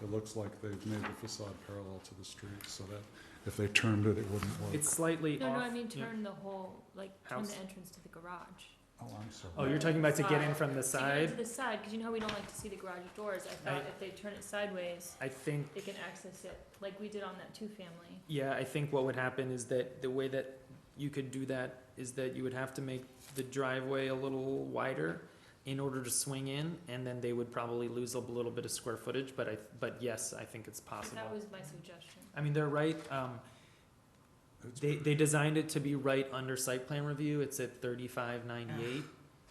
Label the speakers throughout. Speaker 1: it looks like they've made the facade parallel to the street, so that if they turned it, it wouldn't work.
Speaker 2: It's slightly
Speaker 3: No,
Speaker 2: off.
Speaker 3: no, I mean
Speaker 2: yeah.
Speaker 3: turn the whole, like turn
Speaker 2: House.
Speaker 3: the entrance to the garage.
Speaker 1: Oh, I'm sorry.
Speaker 2: Oh, you're talking about to get in from the
Speaker 3: To get into
Speaker 2: side?
Speaker 3: the side, because you know how we don't like to see the garage doors. I thought
Speaker 2: I-
Speaker 3: if they turn it sideways,
Speaker 2: I think,
Speaker 3: they can access it, like we did on that two-family.
Speaker 2: yeah, I think what would happen is that the way that you could do that is that you would have to make the driveway a little wider in order to swing in, and then they would probably lose a little bit of square footage, but I, but yes, I think it's possible.
Speaker 3: That was my suggestion.
Speaker 2: I mean, they're right, um,
Speaker 1: It's
Speaker 2: They,
Speaker 1: pretty-
Speaker 2: they designed it to be right under site plan review, it's at thirty-five ninety-eight,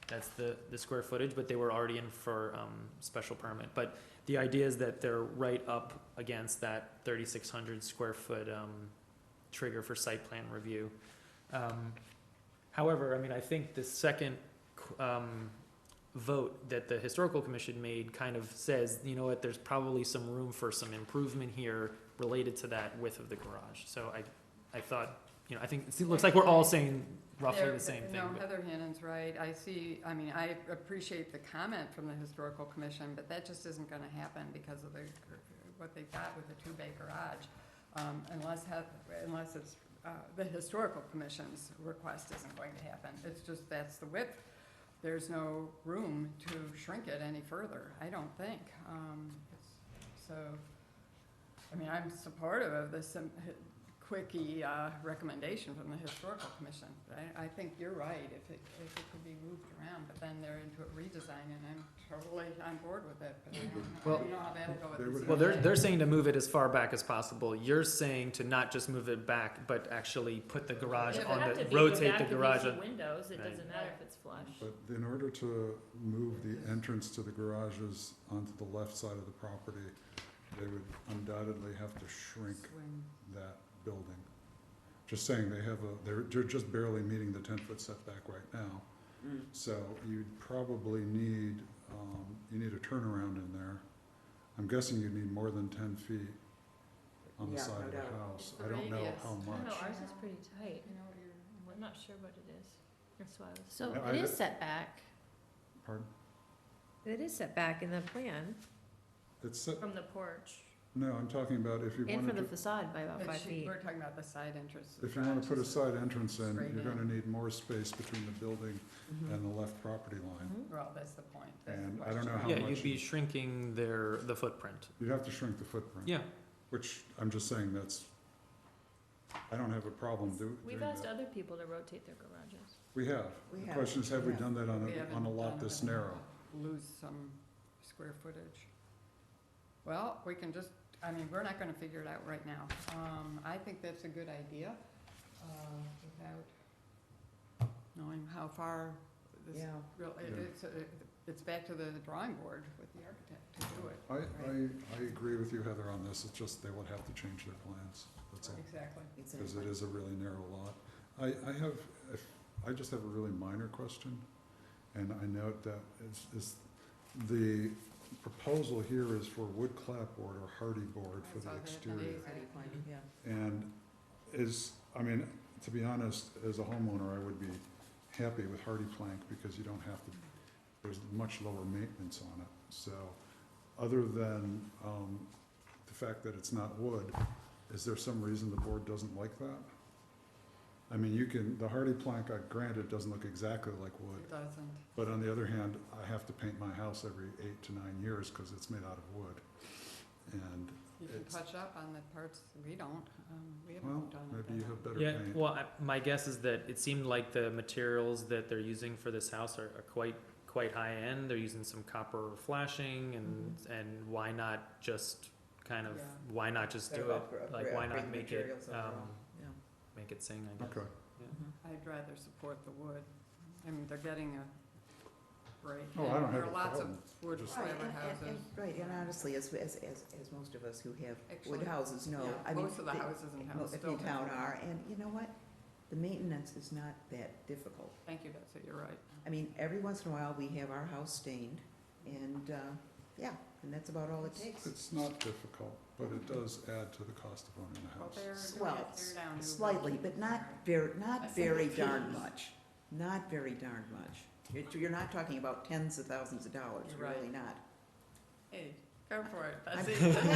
Speaker 2: that's the, the square footage, but they were already in for, um, special permit. But the idea is that they're right up against that thirty-six hundred square foot, um, trigger for site plan review. Um, however, I mean, I think the second, qu- um, vote that the historical commission made kind of says, you know what, there's probably some room for some improvement here related to that width of the garage, so I, I thought, you know, I think, it looks like we're all saying roughly
Speaker 4: There-
Speaker 2: the same thing.
Speaker 4: No,
Speaker 2: but-
Speaker 4: Heather Hannon's right. I see, I mean, I appreciate the comment from the historical commission, but that just isn't gonna happen because of the, what they've got with the two-bay garage. Um, unless, Heth- unless it's, uh, the historical commission's request isn't going to happen. It's just, that's the width. There's no room to shrink it any further, I don't think. Um, so, I mean, I'm supportive of this um, hi- quickie uh, recommendation from the historical commission. I, I think you're right, if it, if it could be moved around, but then they're into a redesign, and I'm totally on board with it, but I don't know- I
Speaker 2: Well-
Speaker 4: don't know how that'll go
Speaker 1: They
Speaker 4: with
Speaker 1: would
Speaker 4: the
Speaker 2: Well, they're,
Speaker 4: ZBA.
Speaker 2: they're saying to move it as far back as possible, you're saying to not just move it back, but actually put the garage
Speaker 3: If it
Speaker 2: on
Speaker 3: had to
Speaker 2: the,
Speaker 3: be, go
Speaker 2: rotate
Speaker 3: back
Speaker 2: the
Speaker 3: and
Speaker 2: garage.
Speaker 3: use
Speaker 2: on-
Speaker 3: the Windows, it
Speaker 2: Right.
Speaker 3: doesn't matter if it's flush.
Speaker 1: But in order to move the entrance to the garages onto the left side of the property, they would undoubtedly have to shrink
Speaker 4: Swing.
Speaker 1: that building. Just saying, they have a, they're, they're just barely meeting the ten-foot setback right now.
Speaker 5: Mm.
Speaker 1: So you'd probably need, um, you need a turnaround in there. I'm guessing you'd need more than ten feet on the
Speaker 5: Yeah,
Speaker 1: side
Speaker 5: no
Speaker 1: of the
Speaker 5: doubt.
Speaker 1: house.
Speaker 4: The
Speaker 1: I don't know
Speaker 4: radius.
Speaker 1: how
Speaker 4: I
Speaker 3: I don't
Speaker 1: much.
Speaker 3: know, ours is pretty tight.
Speaker 4: You know, you're-
Speaker 3: I'm not sure what it is. That's why I was.
Speaker 6: So
Speaker 1: No, I
Speaker 6: Oh, it is
Speaker 1: ju-
Speaker 6: setback,
Speaker 1: Pardon?
Speaker 6: it is setback in the plan,
Speaker 1: It's, set-
Speaker 3: From the porch.
Speaker 1: no, I'm talking about if you
Speaker 6: and from
Speaker 1: wanted
Speaker 6: the
Speaker 1: to,
Speaker 6: facade by about
Speaker 4: But
Speaker 6: five
Speaker 4: she-
Speaker 6: feet.
Speaker 4: We're talking about the side entrance.
Speaker 1: if you wanna put a side entrance in,
Speaker 4: Straight
Speaker 1: you're
Speaker 4: in.
Speaker 1: gonna need more space between the building
Speaker 4: Mm-hmm.
Speaker 1: and the left property line.
Speaker 6: Mhm.
Speaker 4: Well, that's the point, that's the
Speaker 1: And I don't
Speaker 4: question.
Speaker 1: know how
Speaker 2: Yeah,
Speaker 1: much
Speaker 2: you'd be
Speaker 1: you-
Speaker 2: shrinking their, the footprint,
Speaker 1: You'd have to shrink the footprint.
Speaker 2: yeah.
Speaker 1: Which, I'm just saying, that's, I don't have a problem do- doing
Speaker 3: We've asked
Speaker 1: that.
Speaker 3: other people to rotate their garages.
Speaker 1: We have.
Speaker 5: We
Speaker 1: The
Speaker 5: have,
Speaker 1: question is, have we
Speaker 5: yeah.
Speaker 1: done that on
Speaker 4: We
Speaker 1: a,
Speaker 4: haven't
Speaker 1: on a
Speaker 4: done
Speaker 1: lot
Speaker 4: it
Speaker 1: this
Speaker 4: on a
Speaker 1: narrow?
Speaker 4: lot. Lose some square footage. Well, we can just, I mean, we're not gonna figure it out right now. Um, I think that's a good idea, uh, without knowing how far this,
Speaker 5: Yeah,
Speaker 4: real- it-
Speaker 1: Yeah.
Speaker 4: it's, uh, it's back to the drawing board with the architect to do it.
Speaker 1: I, I, I agree with you, Heather, on this, it's just they would have to change their plans, that's all,
Speaker 4: Exactly.
Speaker 1: because
Speaker 5: exactly.
Speaker 1: it is a really narrow lot. I, I have, if- I just have a really minor question, and I note that is, is, the proposal here is for wood clapboard or hardy board
Speaker 4: I
Speaker 1: for
Speaker 4: saw
Speaker 1: the
Speaker 4: that.
Speaker 1: exterior.
Speaker 4: Amazing.
Speaker 5: Yeah.
Speaker 1: And is, I mean, to be honest, as a homeowner, I would be happy with hardy plank because you don't have to, there's much lower maintenance on it. So, other than, um, the fact that it's not wood, is there some reason the board doesn't like that? I mean, you can, the hardy plank, uh, granted, doesn't look exactly like wood,
Speaker 4: It doesn't.
Speaker 1: but on the other hand, I have to paint my house every eight to nine years because it's made out of wood. And,
Speaker 4: You can
Speaker 1: It's-
Speaker 4: touch up on the parts we don't, um, we
Speaker 1: well,
Speaker 4: haven't done it.
Speaker 1: maybe you
Speaker 4: that
Speaker 1: have
Speaker 4: way.
Speaker 1: better
Speaker 2: Yeah,
Speaker 1: paint.
Speaker 2: well, I- my guess is that it seemed like the materials that they're using for this house are, are quite, quite high-end. They're using some copper flashing and,
Speaker 5: Mm-hmm.
Speaker 2: and why not just kind of,
Speaker 4: Yeah.
Speaker 2: why not just do
Speaker 5: Better
Speaker 2: it?
Speaker 5: upgra-
Speaker 2: Like,
Speaker 5: upgra-
Speaker 2: why not
Speaker 5: upgrade
Speaker 2: make it,
Speaker 5: materials
Speaker 2: um,
Speaker 5: overall, yeah.
Speaker 2: make it sing, I guess.
Speaker 1: Okay.
Speaker 4: I'd rather support the wood. I mean, they're getting a break.
Speaker 1: Oh, I don't have a
Speaker 4: There are lots of
Speaker 1: problem.
Speaker 4: wood
Speaker 1: Just-
Speaker 5: Right,
Speaker 4: fiber
Speaker 5: and- and-
Speaker 4: houses.
Speaker 5: and- Right, and honestly, as, as, as, as most of us who have
Speaker 4: Actually,
Speaker 5: wood houses know,
Speaker 4: yeah,
Speaker 5: I mean.
Speaker 4: Most of the houses in town
Speaker 5: Most
Speaker 4: still
Speaker 5: in town
Speaker 4: have-
Speaker 5: are, and you know what? The maintenance is not that difficult.
Speaker 4: Thank you, Betsy, you're right.
Speaker 5: I mean, every once in a while, we have our house stained, and, uh, yeah, and that's about all it takes.
Speaker 1: It's not difficult, but it does add to the cost of owning a
Speaker 4: Well,
Speaker 1: house.
Speaker 4: they're
Speaker 5: Well,
Speaker 4: doing it, they're down. new
Speaker 5: Slightly,
Speaker 4: buildings.
Speaker 5: but not very,
Speaker 4: I
Speaker 5: not
Speaker 4: think
Speaker 5: very
Speaker 4: it
Speaker 5: darn
Speaker 4: is.
Speaker 5: much, not very darn much. You're, you're not talking about tens of thousands of dollars,
Speaker 4: You're
Speaker 5: you're
Speaker 4: right.
Speaker 5: really not.
Speaker 4: Hey, go for it,
Speaker 5: I'm-
Speaker 4: Betsy.